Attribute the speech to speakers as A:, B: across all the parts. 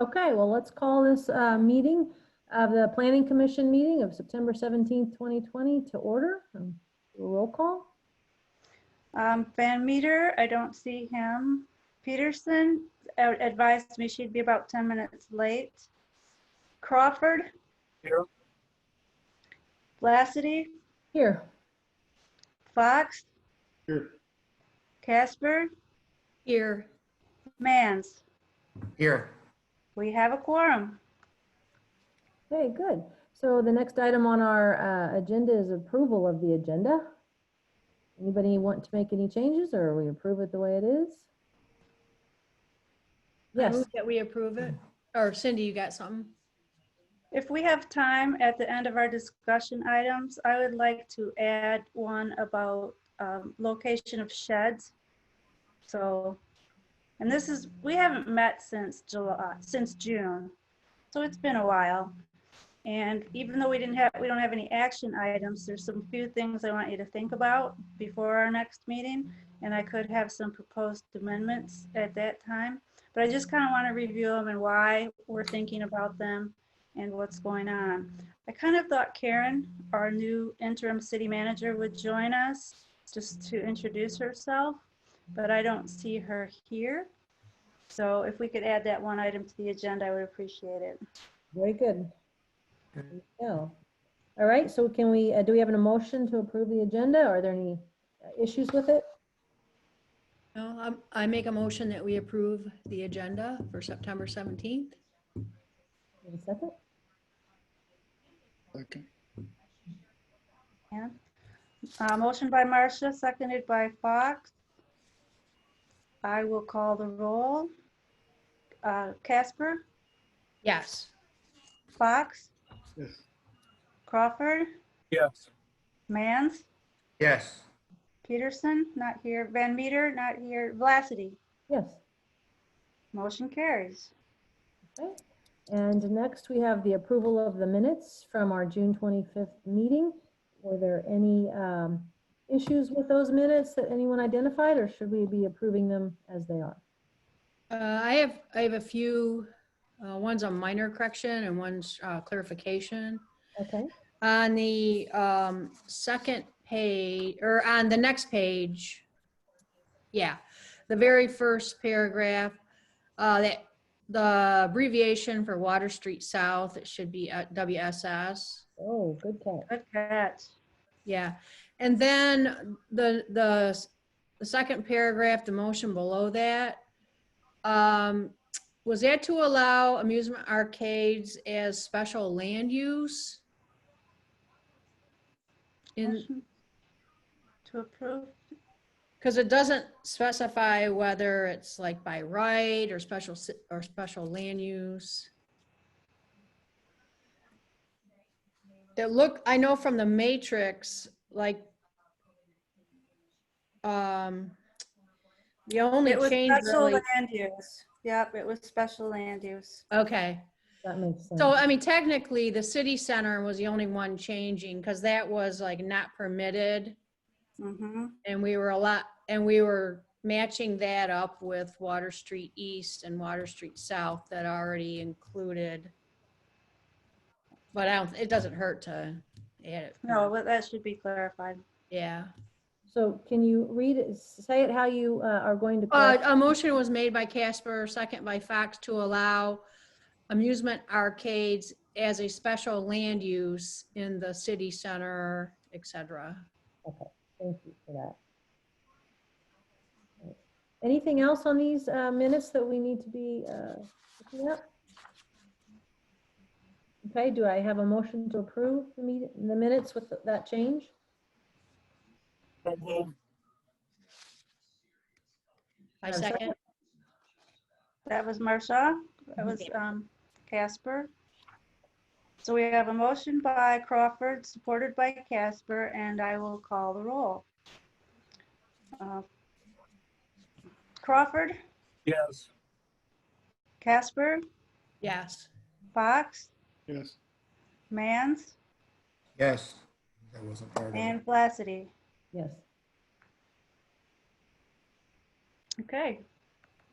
A: Okay, well, let's call this uh, meeting of the Planning Commission meeting of September 17th, 2020 to order. Um, Roll call.
B: Um, Van Meter, I don't see him. Peterson uh, advised me she'd be about 10 minutes late. Crawford.
C: Here.
B: Lassity,
A: Here,
B: Fox.
C: Here.
B: Casper,
D: Here,
B: Mans.
C: Here.
B: We have a quorum.
A: okay, good. So the next item on our uh, agenda is approval of the agenda. Anybody want to make any changes or we approve it the way it is?
D: I
A: Yes,
D: move that we approve it. Or Cindy, you got something?
B: If we have time at the end of our discussion items, I would like to add one about um, location of sheds. So, and this is, we haven't met since July, since June. So it's been a while. And even though we didn't have, we don't have any action items, there's some few things I want you to think about before our next meeting. And I could have some proposed amendments at that time. But I just kind of want to review them and why we're thinking about them and what's going on. I kind of thought Karen, our new interim city manager, would join us just to introduce herself, but I don't see her here. So if we could add that one item to the agenda, I would appreciate it.
A: very good.
C: Good.
A: Yeah. All right, so can we, uh, do we have an emotion to approve the agenda? Are there any uh, issues with it?
D: No, I'm- I make a motion that we approve the agenda for September 17th.
A: Wait a second.
B: Yeah. Uh, Motion by Marcia, seconded by Fox. I will call the roll. Uh, Casper,
D: Yes.
B: Fox,
C: Yes.
B: Crawford,
C: Yes.
B: Mans,
C: Yes.
B: Peterson, not here, Van Meter, not here, Vlacity.
A: Yes.
B: Motion carries.
A: Okay. And next, we have the approval of the minutes from our June 25th meeting. Were there any um, issues with those minutes that anyone identified, or should we be approving them as they are?
D: Uh, I have, I have a few, uh, one's a minor correction and one's uh, clarification.
A: Okay,
D: On the um, second page, or on the next page, yeah, the very first paragraph, uh, that, the abbreviation for Water Street South, it should be uh, WSS.
A: oh, good catch.
B: Good catch.
D: Yeah, and then the, the, s- the second paragraph, the motion below that. um, Was that to allow amusement arcades as special land use? In,
B: Motion To approve,
D: because it doesn't specify whether it's like by right or special, si- or special land use. It look, I know from the matrix, like, um, the only
B: it was
D: change
B: special
D: really,
B: land use. Yep, it was special land use.
D: okay.
A: That makes sense.
D: So, I mean, technically, the city center was the only one changing, because that was like not permitted.
B: Mm-hmm,
D: And we were a lot, and we were matching that up with Water Street East and Water Street South that already included. But I don't, it doesn't hurt to add it.
B: no, but that should be clarified.
D: Yeah.
A: So can you read, it? say it how you uh, are going to.
D: Uh,
A: correct-
D: a motion was made by Casper, second by Fox to allow amusement arcades as a special land use in the city center, et cetera.
A: Okay, thank you for that. Anything else on these uh, minutes that we need to be uh, looking at? Okay, do I have a motion to approve the meet- the minutes with that change?
D: I
A: I'm sorry?
D: second.
B: That was Marcia, that was um, Casper. So we have a motion by Crawford, supported by Casper, and I will call the roll. Uh, Crawford,
C: Yes.
B: Casper,
D: Yes.
B: Fox,
C: Yes.
B: Mans,
C: Yes. That wasn't part of it.
B: and Vlacity.
A: Yes,
B: Okay.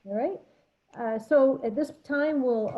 A: all right. Uh, So at this time, we'll